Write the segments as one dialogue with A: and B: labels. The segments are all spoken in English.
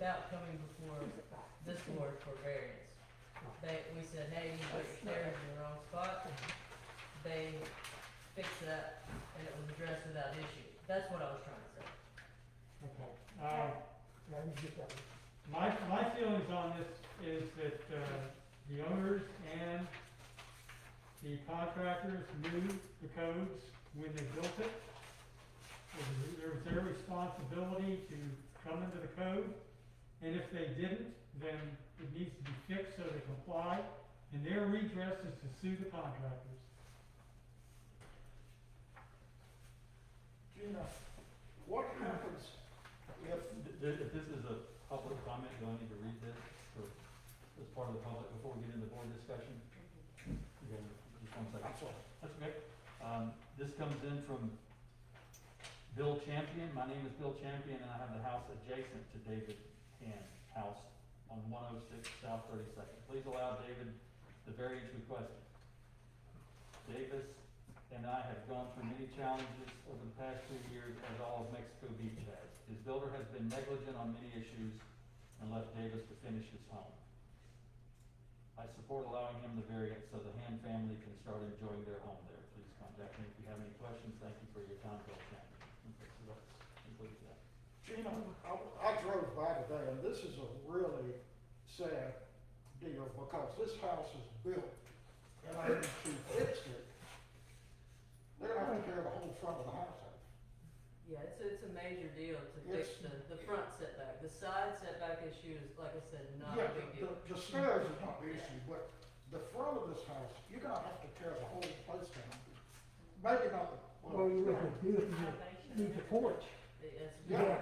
A: without coming before this board for variance. They, we said, hey, you put your stairs in the wrong spot, they fixed that, and it was addressed without issue, that's what I was trying to say.
B: Okay, um,
C: Now, you get that.
B: my, my feelings on this is that, uh, the owners and the contractors knew the codes when they built it. It was- It was their responsibility to come into the code, and if they didn't, then it needs to be fixed so they comply, and their redress is to sue the contractors.
C: Gina, what happens if,
D: Th- th- If this is a public comment, do I need to read this for, as part of the public before we get into board discussion? Okay, Just one second.
C: that's all,
D: That's okay. Um, this comes in from Bill Champion. My name is Bill Champion and I have the house adjacent to David Hand's house on one oh six South Thirty-second. Please allow David the variance requested. Davis and I have gone through many challenges over the past two years as all of Mexico Beach has. His builder has been negligent on many issues and left Davis to finish his home. I support allowing him the variance so the Hand family can start enjoying their home there. Please contact me if you have any questions. Thank you for your time, Bill Cameron. Okay, so that concludes that.
C: Gina, I, I drove by today, and this is a really sad deal, because this house is built, and I need to fix it. They're gonna have to tear the whole front of the house out.
A: Yeah, it's, it's a major deal to fix the, the front setback, the side setback issue is, like I said, not a
C: Yeah,
A: big deal.
C: the, the stairs is not the issue, but the front of this house, you're gonna have to tear the whole place down. Maybe not, the-
E: Well, you would have to do it, you need the porch,
A: It- It's,
C: yeah,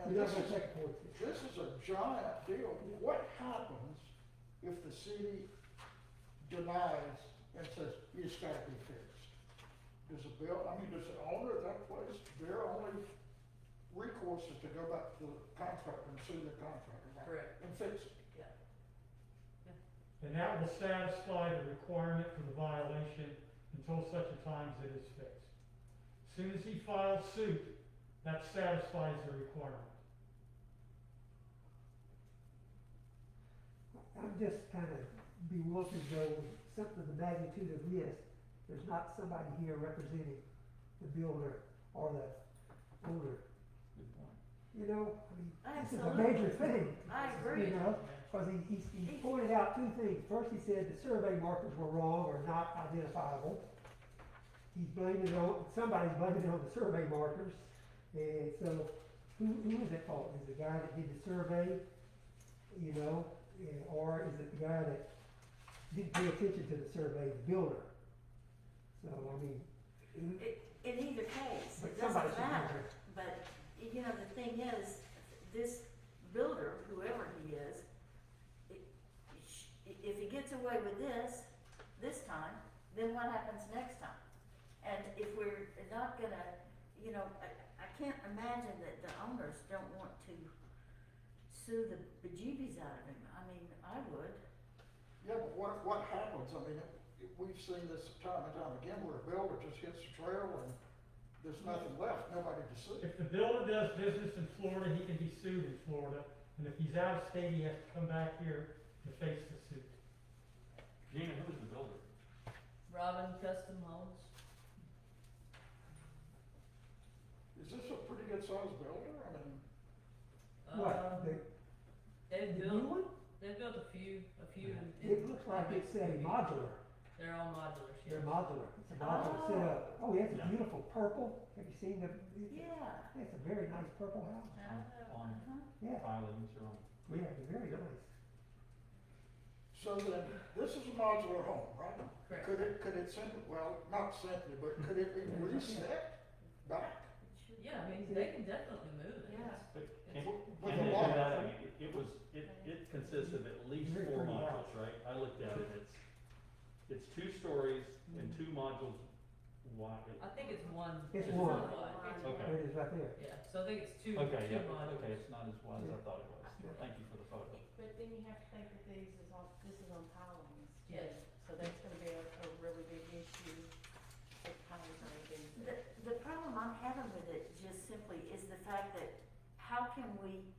C: and
E: you don't
C: this
E: have
C: is
E: a second porch.
C: This is a giant deal. What happens if the city denies and says, it's gotta be fixed? Does the bill, I mean, does the owner of that place, their only recourse is to go back to the contractor and sue the contractor? right?
A: Correct.
C: And fix it.
B: And that will satisfy the requirement for the violation until such a time as it is fixed. As Soon as he files suit, that satisfies the requirement.
E: I'm just kind of bewildered though, with something of the magnitude of this, there's not somebody here representing the builder or the owner.
D: Good point.
E: You know, I mean, this is a
A: Absolutely.
E: major thing,
A: I
E: you
A: agree.
E: know, because he, he, he pointed out two things. First, he said the survey markers were wrong or not identifiable. He's blaming it on, somebody's blaming it on the survey markers. And so, who, who is at fault? Is it the guy that did the survey, you know, eh, or is it the guy that didn't pay attention to the survey, the builder? So, I mean, who-
F: It, in either case,
E: but
F: it
E: somebody should
F: doesn't
E: be here.
F: matter, but, you know, the thing is, this builder, whoever he is, i- sh- if he gets away with this, this time, then what happens next time? And if we're not gonna, you know, I, I can't imagine that the owners don't want to sue the bejeebies out of him, I mean, I would.
C: Yeah, but what, what happens? I mean, we've seen this time and time again where a builder just hits the trail and there's nothing left, nobody to sue.
B: If the builder does business in Florida, he can be sued in Florida, and if he's out of state, he has to come back here to face the suit.
D: Gina, who is the builder?
A: Robin Custom Homes,
C: Is this a pretty good sized builder? I mean,
A: um,
E: what, the, the
A: they've
E: new
A: Uh, built,
E: one?
A: they've built a few, a few. in-
E: It looks like it's a modular.
A: They're all modular, yeah.
E: They're modular, it's a modular
F: Oh.
E: setup. Oh, yeah, it's
D: Yeah.
E: a beautiful purple. Have you seen the, it-
F: Yeah.
E: it's a very nice purple house.
F: Uh,
D: On
F: uh-huh.
E: Yeah,
D: filings or on?
E: yeah, it's very nice.
C: so then, this is a modular home, right?
A: Correct.
C: Could it, could it simply, well, not simply, but could it be reset back?
F: It should
A: Yeah, I mean, they can definitely move it.
F: Yeah.
D: But
A: It's-
D: can,
C: With
D: can
C: the
D: you do
C: law.
D: that? I mean, it- it was, it, it consists of at least
E: Very
D: four
E: pretty
D: modules, right? I looked at it, it's, it's two stories and two modules wide.
A: I think it's one.
E: It's
A: just
E: one.
A: wide.
D: Okay.
E: There it is right there.
A: Yeah, so I think it's two, two
D: Okay, yeah, okay,
A: modules.
D: it's not as wide as I thought it was.
E: Yeah.
D: Thank you for the photo.
G: But then you have to think that these is on, this is on pilings. too.
A: Yes.
G: So that's gonna be a, a really big issue if pilings are a big.
F: The, the problem I'm having with it just simply is the fact that how can we